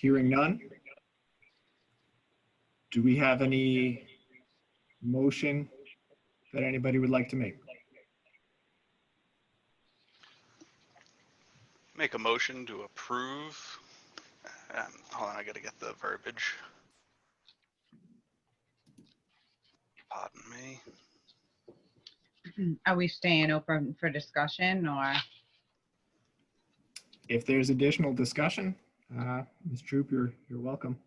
Hearing none? Do we have any motion that anybody would like to make? Make a motion to approve. Um, hold on, I gotta get the verbiage. Pardon me. Are we staying open for discussion or? If there's additional discussion, uh, Ms. Troop, you're, you're welcome.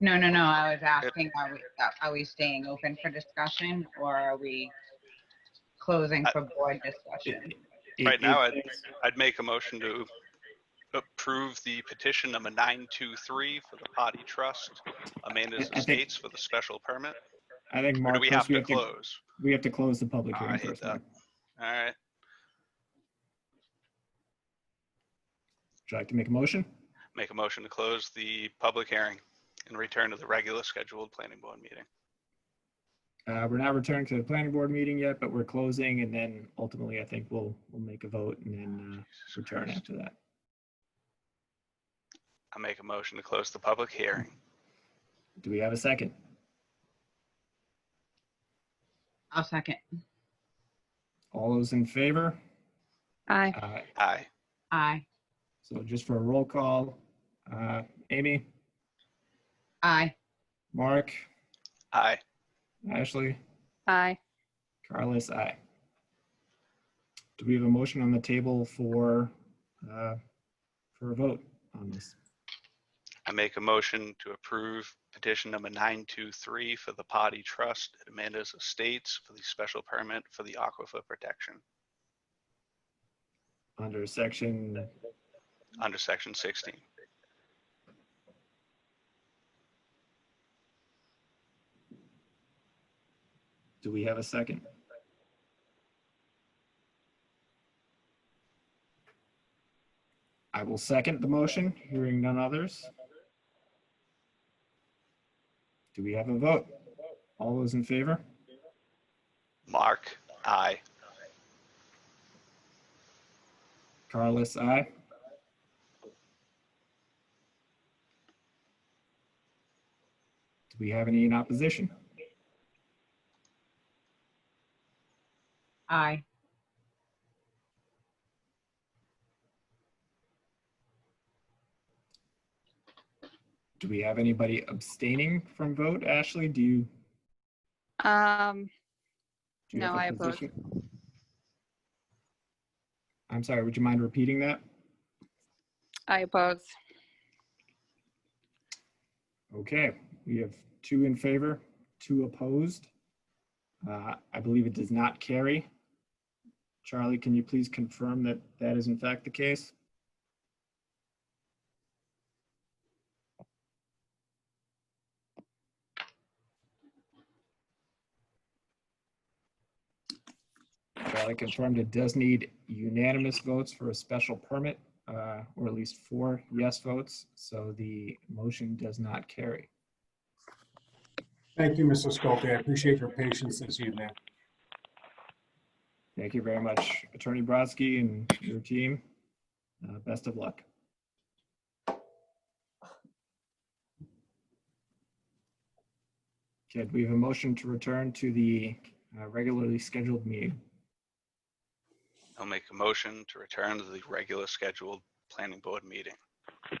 No, no, no, I was asking, are we, uh, are we staying open for discussion or are we closing for board discussion? If- Right now, if I'd- there's- I'd make a motion to approve the petition number 923 for the potty trust, Amanda's I- I think- Estates for the special permit. I think Or Mark, do we first have we to have to, close? we have to close the public Ah, I hearing hate first. that. Mark. All right, Would you like to make a motion? make a motion to close the public hearing and return to the regular scheduled planning board meeting. Uh, We're not returning to the planning board meeting yet, but we're closing and then ultimately I think we'll, we'll make a vote and then uh, Jesus return Christ. after that. I make a motion to close the public hearing. Do we have a second? I'll second. All those in favor? Uh, Aye. Aye. Aye. Aye. So just for a roll call, uh, Amy, Aye. Mark, Aye. Ashley, Aye. Carlos, aye. Do we have a motion on the table for, uh, for a vote on this? I make a motion to approve petition number 923 for the potty trust at Amanda's Estates for the special permit for the aquifer protection Under section, under section 16. do we have a second? I will second the motion, hearing none others. Do we have a vote? All those in favor? Mark, aye. Carlos, aye. Do we have any in opposition? Aye. Do we have anybody abstaining from vote? Ashley, do you? Um, do you have No, a I oppose. position? I'm sorry, would you mind repeating that? I oppose. Okay, we have two in favor, two opposed. Uh, I believe it does not carry. Charlie, can you please confirm that that is in fact the case? Charlie confirmed it does need unanimous votes for a special permit, uh, or at least four yes votes, so the motion does not carry. Thank you, Mr. Sculpey. I appreciate your patience this evening. Thank you very much, Attorney Brodsky and your team. Uh, Best of luck. Okay, do we have a motion to return to the uh, regularly scheduled meeting? I'll make a motion to return to the regular scheduled planning board meeting. Do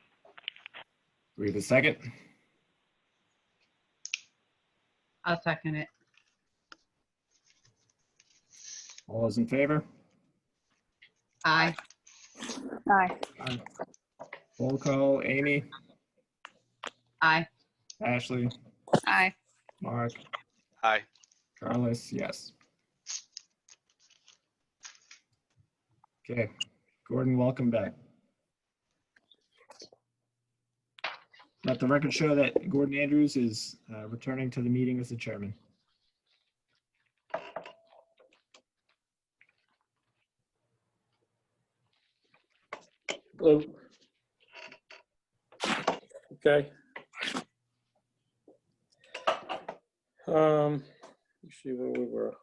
we have a second? I'll second it. All those in favor? Aye. Aye. Roll call, Amy, Aye. Ashley, Aye. Mark, Aye. Carlos, yes. Okay, Gordon, welcome back. Let the record show that Gordon Andrews is uh, returning to the meeting as the chairman. Hello. Okay. Um, let's see where we were.